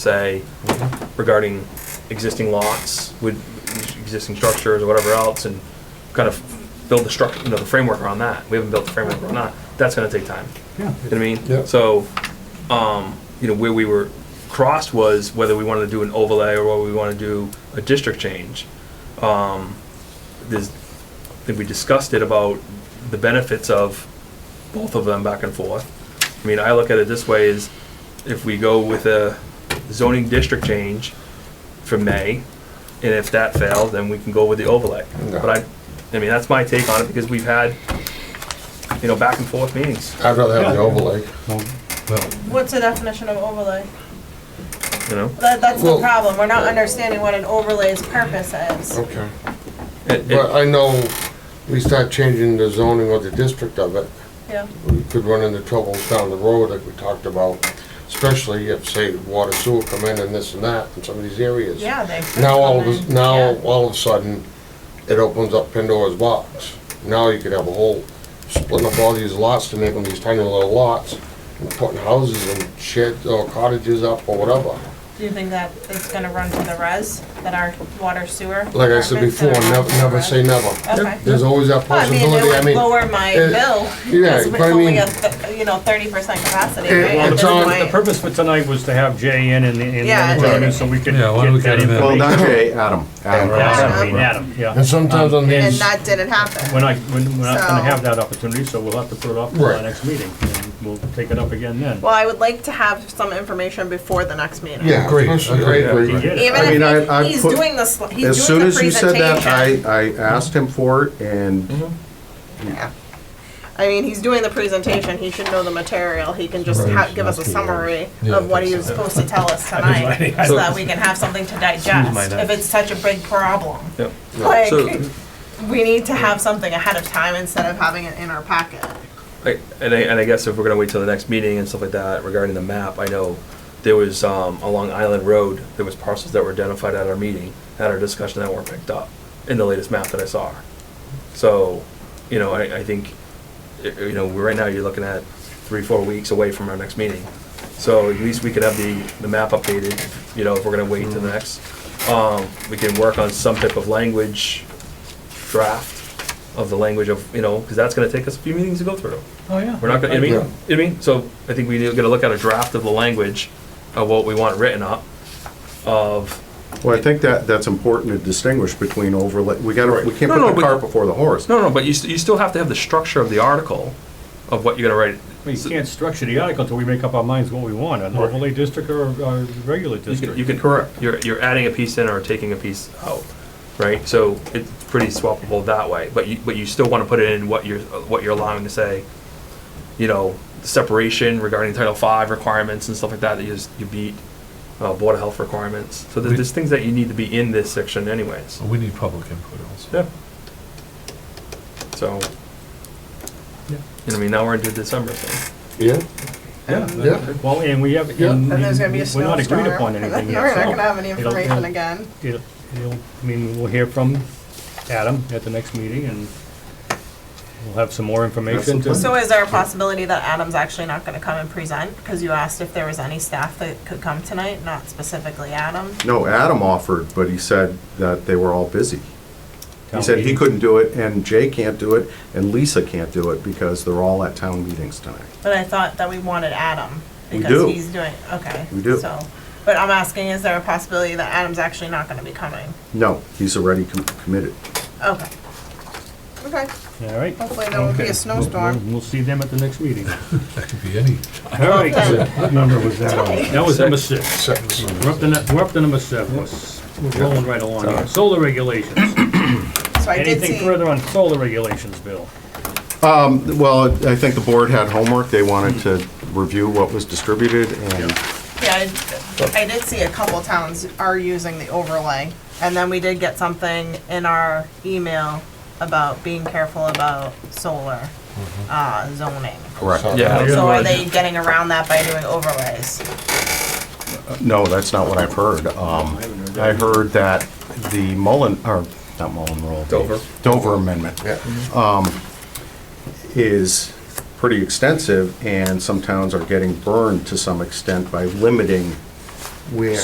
say regarding existing lots with existing structures or whatever else and kind of build the structure, you know, the framework around that. We haven't built the framework around that. That's gonna take time. Yeah. You know what I mean? Yeah. So, um, you know, where we were crossed was whether we wanted to do an overlay or whether we wanna do a district change. Um, there's, I think we discussed it about the benefits of both of them back and forth. I mean, I look at it this way is if we go with a zoning district change for May, and if that fails, then we can go with the overlay. But I, I mean, that's my take on it because we've had, you know, back and forth meetings, I'd rather have the overlay. Well, well, What's the definition of overlay? you know? That, that's the Well- problem, we're not understanding what an overlay's purpose is. Okay. It- it- But I know we start changing the zoning or the district of it, Yeah, we could run into troubles down the road like we talked about, especially if, say, water sewer come in and this and that in some of these areas. yeah, they. could Now, all of, come a- in. now, Yeah. all of a sudden, it opens up Pandora's box. Now you could have a whole, splitting up all these lots to make them these tiny little lots, and putting houses and sheds or cottages up or whatever. Do you think that it's gonna run to the res, that our water sewer? Like I said department's before, gonna run never, to the never res? say never. Okay. There's always that Well, I mean, possibility, I it would mean. lower my it- bill, yeah, because it's but I only mean- a, th- you know, thirty percent capacity, It- right? well, At it's this on- point. The purpose for tonight was to have Jay in and, and Yeah, Adam Jay. so we could Yeah, why don't we get that get him in? Well, information. not Jay, Adam. Adam, I Adam. mean, Adam, yeah. Um, And sometimes on And these, that didn't happen. We're not, we're we're not So- gonna have that opportunity, so we'll have to put it off for Right. our next meeting, and we'll take it up again then. Well, I would like to have some information before the next meeting. yeah, Agreed, especially, agreed. I agree. He did it. Even I mean, if I- I he- he's put- doing this, he's As doing soon the as you said that, I, presentation. I asked him for it and mm-hmm, I mean, he's doing the presentation, he should know the material, he can just ha- give us a summary Yeah, of what he was supposed to tell us tonight, so that we can have something to digest, if it's such a big problem. Yep. Like, So, we need to have something ahead of time instead of having it in our packet. I- and I, and I guess if we're gonna wait till the next meeting and stuff like that regarding the map, I know there was, um, along Island Road, there was parcels that were identified at our meeting, at our discussion that weren't picked up in the latest map that I saw. So, you know, I, I think, i- you know, we're- right now you're looking at three, four weeks away from our next meeting. So at least we could have the, the map updated, you know, if we're gonna wait till the next. Um, we can work on some type of language draft of the language of, you know, because that's gonna take us a few meetings to go through. Oh, yeah. We're not gonna, I mean, Yeah. I mean, so I think we are gonna look at a draft of the language of what we want written up of, Well, I think that, that's important to distinguish between overlay, we gotta, we can't No, no, but- put the cart before the horse. no, no, but you, st- you still have to have the structure of the article of what you're gonna We write. So- can't structure the article until we make up our minds what we want, an overlay district or a regular You can, district. you can, correct, you're, you're adding a piece in or taking a piece out, right? So it's pretty swappable that way, but you, but you still wanna put it in what you're, what you're allowing to say, you know, separation regarding Title Five requirements and stuff like that, that you, s- you beat, uh, Board of Health requirements. So there's, there's things that you need to be in this section anyways. so we need public input also. Yeah. So, you know, I mean, now we're into December, so. Yeah, Yeah. yeah. Well, and we have, Yeah. and And there's gonna be a and we're not snowstorm. agreed upon anything yet, We're so not gonna have any it'll- it'll- information again. It'll, it'll, I mean, we'll hear from Adam at the next meeting, and we'll have some more information to. So is there a possibility that Adam's actually not gonna come and present? Because you asked if there was any staff that could come tonight, not specifically Adam. No, Adam offered, but he said that they were all busy. He said he couldn't do it, and Jay can't do it, and Lisa can't do it, because they're all at town meetings tonight. But I thought that we wanted Adam. We Because do. he's doing, okay. We do. So, but I'm asking, is there a possibility that Adam's actually not gonna be coming? No, he's already com- committed. Okay. Okay, All right. hopefully there won't be Okay. a snowstorm. We'll we'll see them at the next meeting. That could be any. All right. What number was that on? That was number six. Six. We're up to, nu- we're up to number seven. We're rolling right along here. Solar regulations. So I did Anything see, further on solar regulations, Bill? Um, well, I think the board had homework, they wanted to review what was distributed, and yeah, I- I did see a couple towns are using the overlay. And then we did get something in our email about being careful about solar, uh, zoning. Mm-hmm. Correct. Yeah. So are they getting around that by doing overlays? No, that's not what I've heard. Um, I heard that the Mullen, or not Mullen Rule. the Dover. Dover Amendment Yeah. is pretty extensive, and some towns are getting burned to some extent by limiting where